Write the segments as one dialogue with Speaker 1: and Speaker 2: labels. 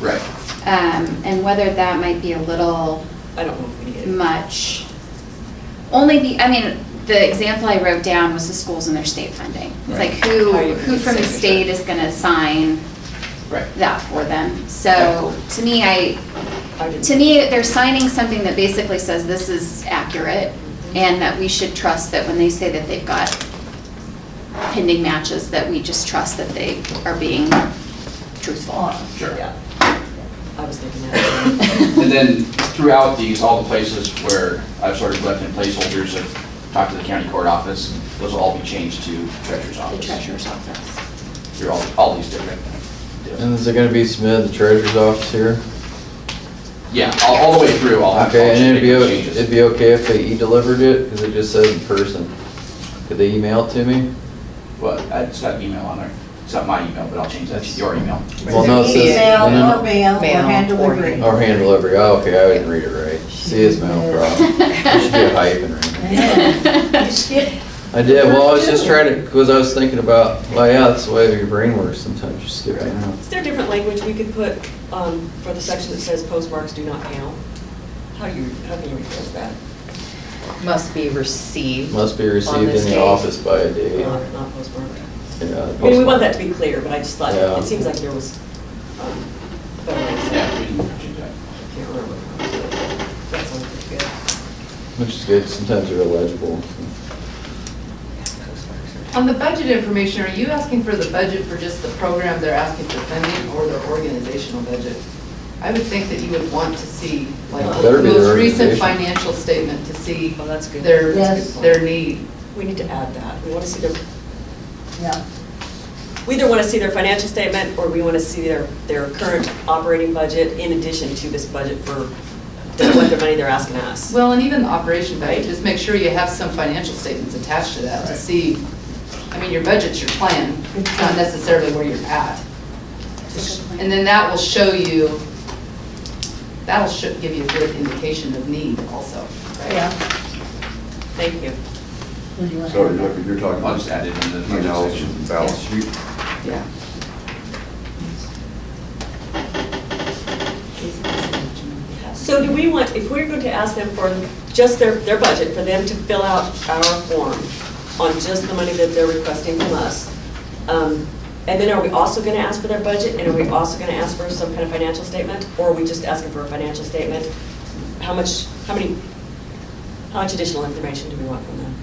Speaker 1: Right.
Speaker 2: Um, and whether that might be a little
Speaker 3: I don't know if we need it.
Speaker 2: much. Only the, I mean, the example I wrote down was the schools and their state funding. It's like who,
Speaker 3: Right.
Speaker 2: who from the state is gonna sign
Speaker 1: Right.
Speaker 2: that for them? So to me, I,
Speaker 3: I didn't-
Speaker 2: to me, they're signing something that basically says this is accurate and that we should trust that when they say that they've got pending matches, that we just trust that they are being truthful.
Speaker 1: Sure.
Speaker 3: Yeah. I was thinking that.
Speaker 1: And then throughout these, all the places where I've sort of left in placeholders, I've talked to the county court office, those will all be changed to treasurer's
Speaker 2: The
Speaker 1: office.
Speaker 2: treasurer's office.
Speaker 1: Through all, all these different
Speaker 4: And
Speaker 1: deals.
Speaker 4: is it gonna be submitted to the treasurer's office here?
Speaker 1: Yeah, all, all the way through, I'll have
Speaker 4: Okay, and it'd be,
Speaker 1: all
Speaker 4: o-
Speaker 1: the changes.
Speaker 4: it'd be okay if they e-delivered it, cause it just says in person. Could they email it to me?
Speaker 1: Well, it's got email on there. It's not my email, but I'll change that to your email.
Speaker 4: Well, no, it says-
Speaker 5: Email
Speaker 4: no,
Speaker 5: or
Speaker 4: no,
Speaker 5: mail or
Speaker 3: Mail
Speaker 5: hand
Speaker 3: or
Speaker 5: delivery.
Speaker 4: Or hand delivery, oh, okay, I didn't read it right. See, it's my own problem. I should do a hyphen or anything.
Speaker 5: Yeah. You skip-
Speaker 4: I did, well, I was just trying to, cause I was thinking about, well, yeah, that's the way your brain works sometimes, you skip it out.
Speaker 3: Is there different language we could put um, for the section that says postmarks do not count? How do you, how can you rephrase that?
Speaker 6: Must be received.
Speaker 4: Must be
Speaker 6: on
Speaker 4: received
Speaker 6: this
Speaker 4: in the
Speaker 6: date.
Speaker 4: office by a date.
Speaker 3: Not not postmark.
Speaker 4: Yeah,
Speaker 3: I mean, we want that to be clear, but I just thought,
Speaker 4: Yeah.
Speaker 3: it seems like there was, um, better ways to-
Speaker 1: Yeah, we can change that.
Speaker 3: I can't remember. That sounds pretty good.
Speaker 4: Which is good, sometimes they're illegible.
Speaker 7: On the budget information, are you asking for the budget for just the program they're asking for funding or their organizational budget? I would think that you would want to see, like,
Speaker 4: Better
Speaker 7: the
Speaker 4: be their
Speaker 7: most recent
Speaker 4: organization.
Speaker 7: financial statement to see
Speaker 3: Well, Oh, that's good.
Speaker 7: their,
Speaker 3: That's a good
Speaker 7: their
Speaker 3: point.
Speaker 7: need.
Speaker 3: We need to add that. We want to see their,
Speaker 5: Yeah.
Speaker 3: we either want to see their financial statement or we want to see their, their current operating budget in addition to this budget for the- what their money they're asking us.
Speaker 7: Well, and even the operation budget,
Speaker 3: Right.
Speaker 7: just make sure you have some financial statements attached to that to
Speaker 1: Right.
Speaker 7: see, I mean, your budget's your plan, it's not necessarily where you're at. And then that will show you, that'll sho- give you a good indication of need also, right?
Speaker 5: Yeah.
Speaker 3: Thank you.
Speaker 5: What do you want?
Speaker 8: So you're you're talking
Speaker 1: I'll
Speaker 8: about
Speaker 1: just
Speaker 8: just
Speaker 1: add it in the budget
Speaker 8: emails
Speaker 1: section.
Speaker 8: and balance sheet?
Speaker 7: Yeah.
Speaker 3: So do we want, if we're going to ask them for just their, their budget, for them to fill out our form on just the money that they're requesting from us, um, and then are we also going to ask for their budget, and are we also going to ask for some kind of financial statement? Or are we just asking for a financial statement? How much, how many, how much additional information do we want from them?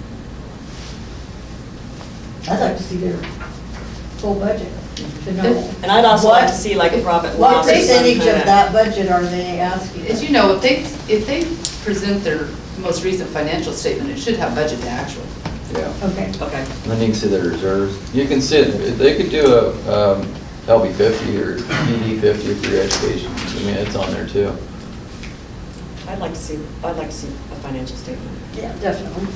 Speaker 5: I'd like to see their whole budget to know.
Speaker 3: And I'd also like to
Speaker 5: What-
Speaker 3: see like a profit and
Speaker 5: What
Speaker 3: loss or some
Speaker 5: percentage
Speaker 3: kind
Speaker 5: of that budget are they asking?
Speaker 7: As you know, if they, if they present their most recent financial statement, it should have budget to actual.
Speaker 4: Yeah.
Speaker 5: Okay.
Speaker 3: Okay.
Speaker 4: And Then you can see the reserves. You can see, it. they could do a um, LB fifty or PD fifty for your education. I mean, it's on there
Speaker 5: Oh,
Speaker 4: too.
Speaker 3: I'd like to see, I'd like to see a financial statement,
Speaker 5: Yeah, definitely.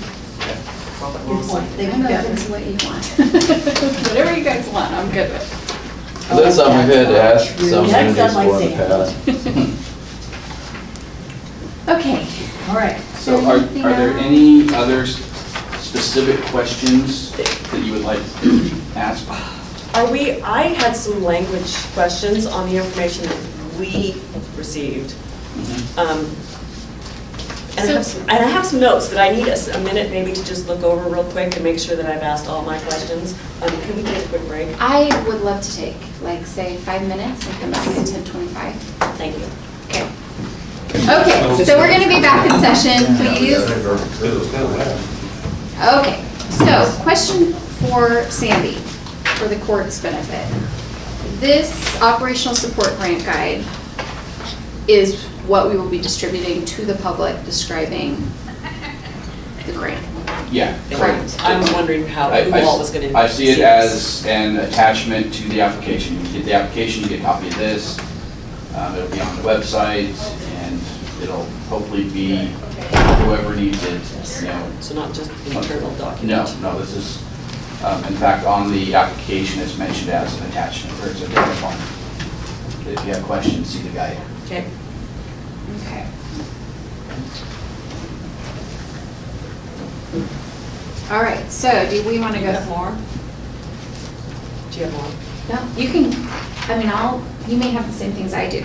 Speaker 3: profit and
Speaker 5: Good
Speaker 3: loss.
Speaker 5: point.
Speaker 2: I
Speaker 5: They
Speaker 2: don't
Speaker 5: can
Speaker 2: know if
Speaker 5: definitely.
Speaker 2: it's what you want. Whatever you guys want, I'm good with.
Speaker 4: But That's something we've had to ask some
Speaker 5: That's
Speaker 4: communities
Speaker 5: not
Speaker 4: for in the
Speaker 5: like
Speaker 4: past.
Speaker 2: Okay.
Speaker 5: All right.
Speaker 1: So are, are
Speaker 2: Anything
Speaker 1: there
Speaker 2: else?
Speaker 1: any other s- specific questions that you would like to ask?
Speaker 3: Are we, I had some language questions on the information that we received.
Speaker 1: Mm-hmm.
Speaker 3: Um, And I have some, and I have some notes that I need us a minute maybe to just look over real quick and make sure that I've asked all my questions. Um, Can we take a quick break?
Speaker 2: I would love to take, like, say, five minutes and come back at ten twenty-five.
Speaker 3: Thank you.
Speaker 2: Okay. Okay, so we're gonna be back in session, please. Okay, so question for Sandy, for the court's benefit. This operational support grant guide is what we will be distributing to the public describing the grant.
Speaker 1: Yeah.
Speaker 2: Correct.
Speaker 3: I'm wondering how,
Speaker 1: I-
Speaker 3: who
Speaker 1: I-
Speaker 3: all was going to see
Speaker 1: I see it
Speaker 3: this.
Speaker 1: as an attachment to the application. You get the application, you get a copy of this. Um, It'll be on the website and it'll hopefully be whoever needs it, you know.
Speaker 3: So not just internal
Speaker 1: No,
Speaker 3: document.
Speaker 1: no, this is, um, in fact, on the application it's mentioned as an attachment or it's a different one. If you have questions, see the guide.
Speaker 3: Okay.
Speaker 2: Okay. All right, so do we want to
Speaker 3: You
Speaker 2: go?
Speaker 3: have more? Do you have more?
Speaker 2: No, you can, I mean, I'll, you may have the same things I do,